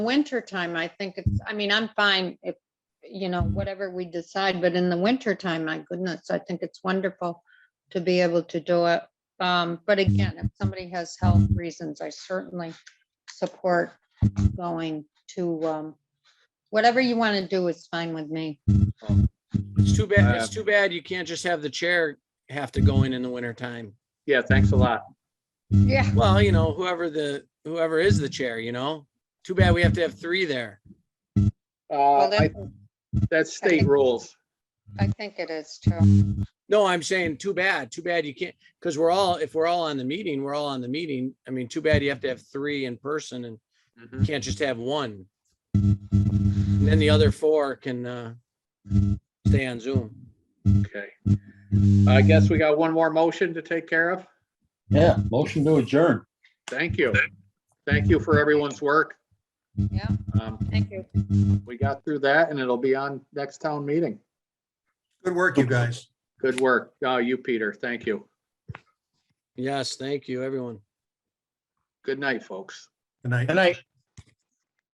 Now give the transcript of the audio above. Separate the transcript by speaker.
Speaker 1: wintertime, I think it's, I mean, I'm fine if, you know, whatever we decide, but in the wintertime, my goodness, I think it's wonderful to be able to do it. Um, but again, if somebody has health reasons, I certainly support going to, um, whatever you want to do is fine with me.
Speaker 2: It's too bad,
Speaker 3: Uh,
Speaker 2: it's too bad you can't just have the chair have to go in in the winter time.
Speaker 3: Yeah, thanks a lot.
Speaker 1: Yeah.
Speaker 2: Well, you know, whoever the, whoever is the chair, you know? Too bad we have to have three there.
Speaker 3: Uh,
Speaker 1: Well,
Speaker 3: I-
Speaker 1: that-
Speaker 3: That's
Speaker 1: I
Speaker 3: state
Speaker 1: think-
Speaker 3: rules.
Speaker 1: I think it is too.
Speaker 2: No, I'm saying too bad, too bad you can't, because we're all, if we're all on the meeting, we're all on the meeting. I mean, too bad you have to have three in person and
Speaker 3: Mhm.
Speaker 2: can't just have one. And then the other four can, uh, stay on Zoom.
Speaker 3: Okay. I guess we got one more motion to take care of.
Speaker 4: Yeah, motion to adjourn.
Speaker 3: Thank you. Thank you for everyone's work.
Speaker 1: Yeah,
Speaker 3: Um,
Speaker 1: thank you.
Speaker 3: We got through that and it'll be on next town meeting.
Speaker 5: Good work, you guys.
Speaker 3: Good work. Uh, You, Peter, thank you.
Speaker 2: Yes, thank you, everyone.
Speaker 3: Good night, folks.
Speaker 5: Good night.
Speaker 4: Good night.